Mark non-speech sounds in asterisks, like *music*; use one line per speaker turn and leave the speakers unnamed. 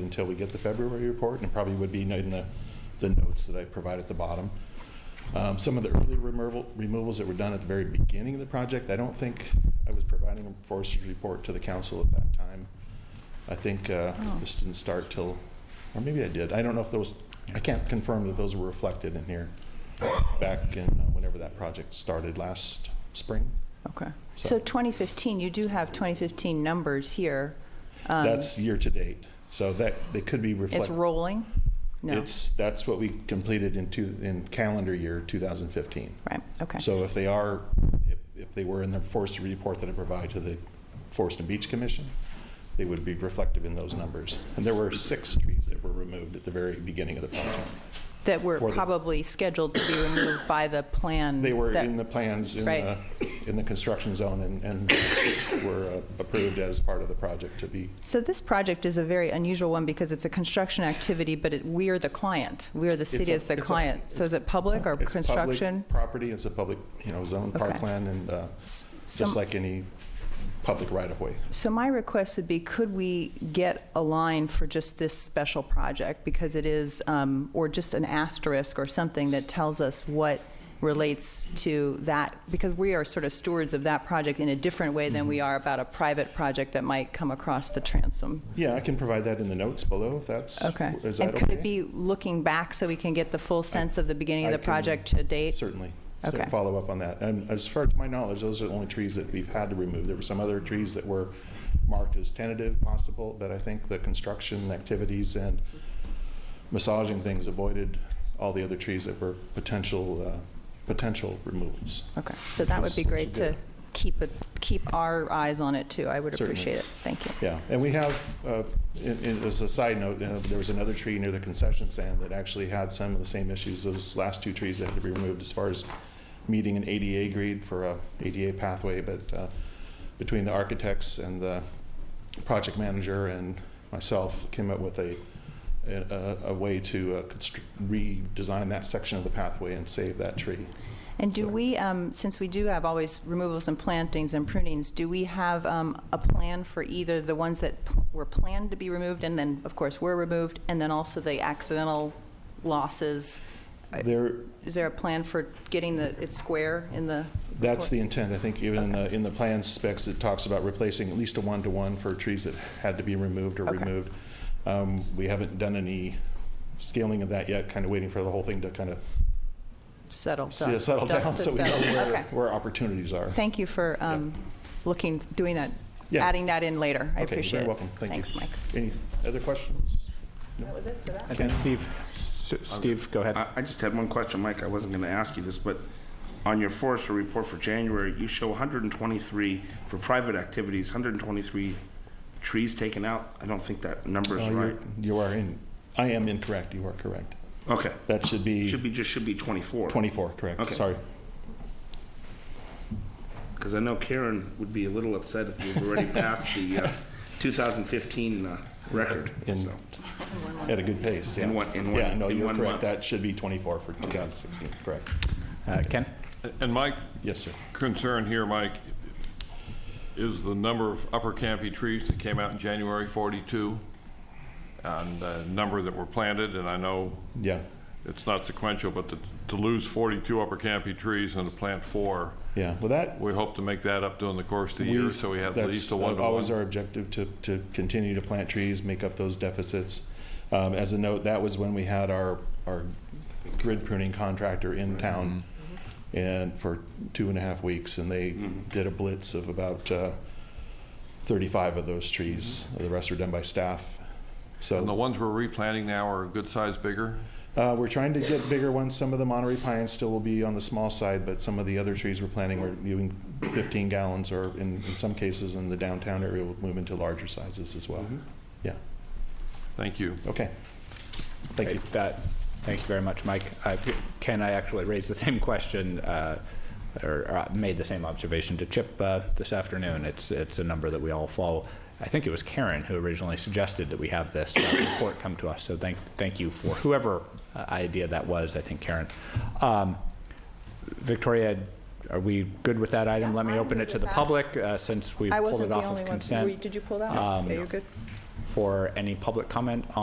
until we get the February report, and it probably would be in the, the notes that I provide at the bottom. Um, Some of the early removal, removals that were done at the very beginning of the project, I don't think I was providing a forester's report to the council at that time. I think uh,
Oh.
this didn't start till, or maybe I did. I don't know if those, I can't confirm that those were reflected in here back in uh, whenever that project started last spring.
Okay.
So-
So 2015, you do have 2015 numbers here. Um,
That's year-to-date, so that, they could be reflected.
It's rolling? No.
It's, that's what we completed in two, in calendar year 2015.
Right, okay.
So if they are, if, if they were in the forest report that I provide to the Forest and Beach Commission, they would be reflective in those numbers. And there were six trees that were removed at the very beginning of the project.
That were
for the-
probably scheduled to be removed by the plan.
They were
that-
in the plans in the,
Right.
in the construction zone and, and were uh, approved as part of the project to be,
So this project is a very unusual one because it's a construction activity, but it- we are the client. We are the city
a-
as the
it's a-
client. So is it public or
it's
construction?
public property, it's a public, you know, zone,
Okay.
parkland, and uh,
S- some-
just like any public right-of-way.
So my request would be, could we get a line for just this special project? Because it is, um, or just an asterisk or something that tells us what relates to that, because we are sort of stewards of that project in a different way than
Mm-hmm.
we are about a private project that might come across the transom.
Yeah, I can provide that in the notes below, if that's,
Okay.
is that okay?
And could it be looking back so we can get the full sense of the beginning of
I
the
can-
project to date?
Certainly.
Okay.
So Follow up on that. And as far as my knowledge, those are the only trees that we've had to remove. There were some other trees that were marked as tentative possible, but I think the construction activities and massaging things avoided all the other trees that were potential, uh, potential removals.
Okay, so that would be
Those- those
great
are
to
good.
keep, it- keep our eyes on it too. I would
Certainly.
appreciate it. Thank you.
Yeah, and we have, uh, in- in- as a side note, uh, there was another tree near the concession stand that actually had some of the same issues, those last two trees that had to be removed as far as meeting an ADA grade for a ADA pathway, but uh, between the architects and the project manager and myself came up with a, a- a a way to uh, constr- redesign that section of the pathway and save that tree.
And do
So-
we, um, since we do have always removals and plantings and prunings, do we have um, a plan for either the ones that p- were planned to be removed and then, of course, were removed, and then also the accidental losses?
There,
Is there a plan for getting the, it square in the?
That's
report?
the intent. I think even in the, in the plan specs, it talks about replacing at least a one-to-one for trees that had to be removed or
Okay.
removed. Um, We haven't done any scaling of that yet, kind of waiting for the whole thing to kind of
Settle dust.
settle down *laughs*
dust to
so we know
settle.
where,
Okay.
where opportunities are.
Thank you for um, looking, doing that,
Yeah.
adding that in later. I
Okay, you're
appreciate it.
Very welcome. Thank you.
Thanks, Mike.
Any other questions?
I think Steve, S- Steve, go ahead.
I I just had one question, Mike. I wasn't going to ask you this, but on your forester report for January, you show 123 for private activities, 123 trees taken out. I don't think that number is
No, Oh, Uh, you're-
right.
You are in, I am incorrect. You are correct.
Okay.
That should
Should
be
be, just should be 24.
24, correct?
Okay.
Sorry.
Because I know Karen would be a little upset if we've already passed the uh, 2015 uh, record.
In-
So,
At a good pace, yeah.
In one- in
Yeah,
one-
no,
in
you're
one
correct.
month.
That should be 24 for 2016, correct?
Uh, Ken?
And my
Yes, sir.
concern here, Mike, is the number of Upper Campy trees that came out in January 42 and the number that were planted, and I know
Yeah,
it's not sequential, but to- to lose 42 Upper Campy trees and to plant four,
yeah. Well, that,
we hope to make that up during the course of the year, so we have at
that's uh,
least a one-to-one.
Always our objective to, to continue to plant trees, make up those deficits. Um, as a note, that was when we had our, our grid pruning contractor
Mm-hmm.
in town and for two and a half weeks, and they
Mm-hmm.
did a blitz of about, uh, thirty-five of those trees. The rest were done by staff. So.
Mm-hmm. And the ones we're replanting now are a good size bigger?
Uh, we're trying to get bigger ones. Some of the Monterey pines still will be on the small side, but some of the other trees we're planting are doing 15 gallons, or in, in some cases in the downtown area, will move into larger sizes as well. Yeah,
Thank you.
okay. Thank you.
Great. That, thank you very much, Mike. Uh, Ken, I actually raised the same question, uh, or or I made the same observation to Chip uh, this afternoon. It's, it's a number that we all follow. I think it was Karen who originally suggested that we have this uh, report come to us, so thank, thank you for whoever uh, idea that was, I think Karen. Um, Victoria, are we good with that item? Let me
I'm
open
good
it to
with
the
that.
public, uh, since we
I
pulled
wasn't
it
the
off of
only one.
consent.
Were you- Did you pull that? Yeah,
Um,
you're good.
For any public comment